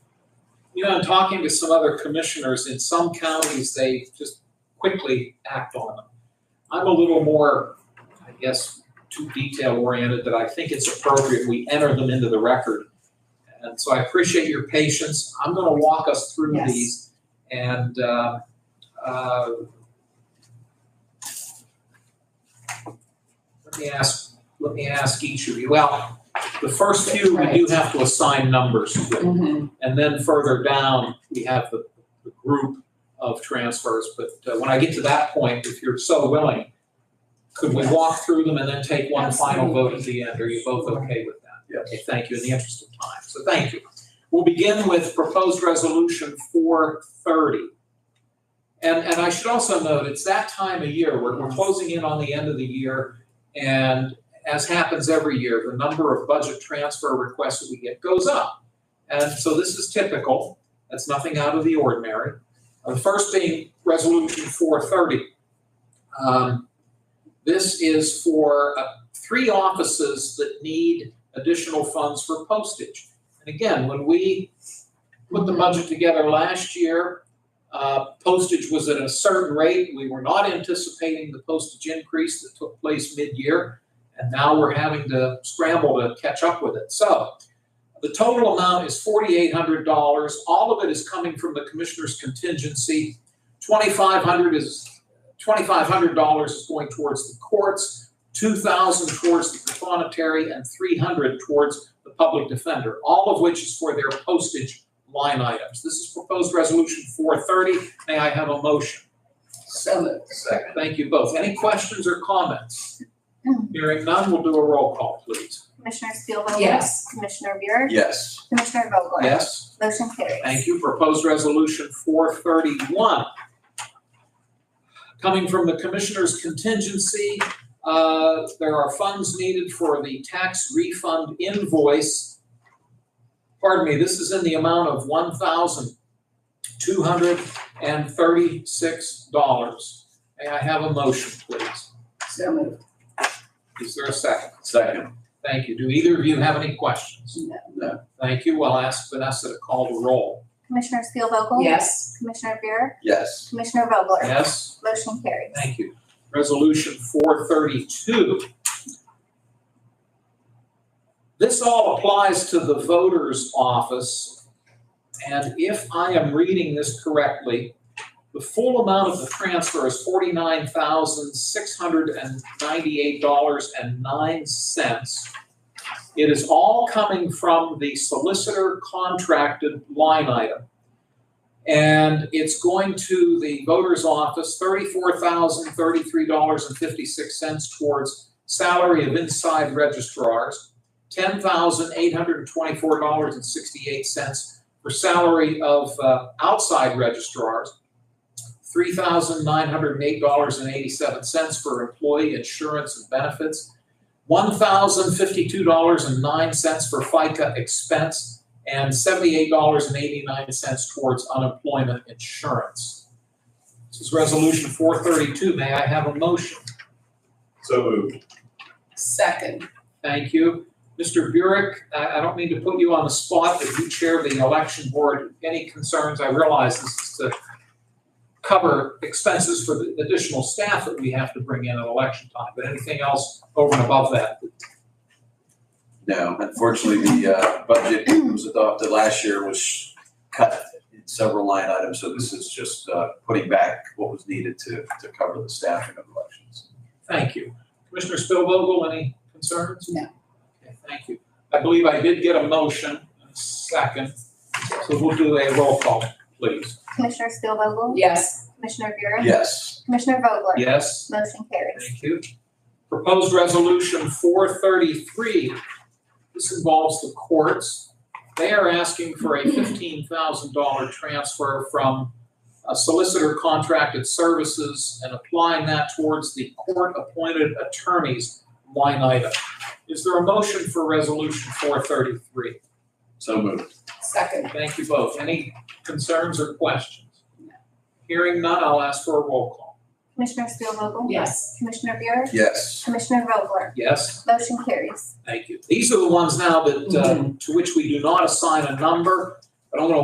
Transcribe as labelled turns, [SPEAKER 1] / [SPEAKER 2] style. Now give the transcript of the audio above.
[SPEAKER 1] you know, in talking to some other commissioners, in some counties, they just quickly act on them. I'm a little more, I guess, too detail oriented, that I think it's appropriate we enter them into the record. And so I appreciate your patience. I'm gonna walk us through
[SPEAKER 2] Yes.
[SPEAKER 1] these. And, uh, uh, let me ask, let me ask each of you, well, the first few, we do have to assign numbers to. And then further down, we have the, the group of transfers, but uh, when I get to that point, if you're so willing, could we walk through them and then take one final vote at the end? Are you both okay with that?
[SPEAKER 3] Yes.
[SPEAKER 1] Okay, thank you, in the interest of time, so thank you. We'll begin with proposed resolution four thirty. And, and I should also note, it's that time of year, we're, we're closing in on the end of the year, and as happens every year, the number of budget transfer requests that we get goes up. And so this is typical, that's nothing out of the ordinary. Uh, The first being Resolution 430. Um, This is for uh, three offices that need additional funds for postage. And again, when we put the budget together last year, uh, postage was at a certain rate. We were not anticipating the postage increase that took place mid-year, and now we're having to scramble to catch up with it. So the total amount is forty-eight hundred dollars. All of it is coming from the commissioner's contingency. Twenty-five hundred is, twenty-five hundred dollars is going towards the courts, two thousand towards the promontory, and three hundred towards the public defender, all of which is for their postage line items. This is proposed resolution four thirty. May I have a motion?
[SPEAKER 2] So moved.
[SPEAKER 3] Second.
[SPEAKER 1] Thank you both. Any questions or comments? Hearing none, we'll do a roll call, please.
[SPEAKER 4] Commissioner Steelvogel?
[SPEAKER 2] Yes.
[SPEAKER 4] Commissioner Buick?
[SPEAKER 3] Yes.
[SPEAKER 4] Commissioner Vogler?
[SPEAKER 1] Yes?
[SPEAKER 4] Motion carries.
[SPEAKER 1] Thank you. Proposed resolution four thirty-one. Coming from the commissioner's contingency, uh, there are funds needed for the tax refund invoice. Pardon me, this is in the amount of one thousand two hundred and thirty-six dollars. May I have a motion, please?
[SPEAKER 2] So moved.
[SPEAKER 1] Is there a second?
[SPEAKER 3] Second.
[SPEAKER 1] Thank you. Do either of you have any questions?
[SPEAKER 2] No.
[SPEAKER 1] Thank you. I'll ask Vanessa to call the roll.
[SPEAKER 4] Commissioner Steelvogel?
[SPEAKER 2] Yes.
[SPEAKER 4] Commissioner Buick?
[SPEAKER 3] Yes.
[SPEAKER 4] Commissioner Vogler?
[SPEAKER 1] Yes?
[SPEAKER 4] Motion carries.
[SPEAKER 1] Thank you. Resolution four thirty-two. This all applies to the voter's office. And if I am reading this correctly, the full amount of the transfer is forty-nine thousand, six hundred and ninety-eight dollars and nine cents. It is all coming from the solicitor contracted line item. And it's going to the voter's office, thirty-four thousand, thirty-three dollars and fifty-six cents towards salary of inside registrars, ten thousand, eight hundred and twenty-four dollars and sixty-eight cents for salary of, uh, outside registrars, three thousand, nine hundred and eight dollars and eighty-seven cents for employee insurance and benefits, one thousand, fifty-two dollars and nine cents for FICA expense, and seventy-eight dollars and eighty-nine cents towards unemployment insurance. This is resolution four thirty-two. May I have a motion?
[SPEAKER 3] So moved.
[SPEAKER 2] Second.
[SPEAKER 1] Thank you. Mr. Burek, I, I don't mean to put you on the spot, but you chair the election board. Any concerns? I realize this is to cover expenses for the additional staff that we have to bring in at election time, but anything else over and above that?
[SPEAKER 3] No, unfortunately, the uh, budget that was adopted last year was cut in several line items, so this is just uh, putting back what was needed to, to cover the staffing of elections.
[SPEAKER 1] Thank you. Commissioner Spillvogel, any concerns?
[SPEAKER 2] No.
[SPEAKER 1] Okay, thank you. I believe I did get a motion, a second, so we'll do a roll call, please.
[SPEAKER 4] Commissioner Steelvogel?
[SPEAKER 2] Yes.
[SPEAKER 4] Commissioner Buick?
[SPEAKER 3] Yes.
[SPEAKER 4] Commissioner Vogler?
[SPEAKER 1] Yes?
[SPEAKER 4] Motion carries.
[SPEAKER 1] Thank you. Proposed resolution four thirty-three. This involves the courts. They are asking for a fifteen thousand dollar transfer from a solicitor contracted services and applying that towards the court-appointed attorneys line item. Is there a motion for resolution four thirty-three?
[SPEAKER 3] So moved.
[SPEAKER 2] Second.
[SPEAKER 1] Thank you both. Any concerns or questions? Hearing none, I'll ask for a roll call.
[SPEAKER 4] Commissioner Steelvogel?
[SPEAKER 2] Yes.
[SPEAKER 4] Commissioner Buick?
[SPEAKER 3] Yes.
[SPEAKER 4] Commissioner Vogler?
[SPEAKER 1] Yes?
[SPEAKER 4] Motion carries.
[SPEAKER 1] Thank you. These are the ones now that, uh, to which we do not assign a number, but I'm gonna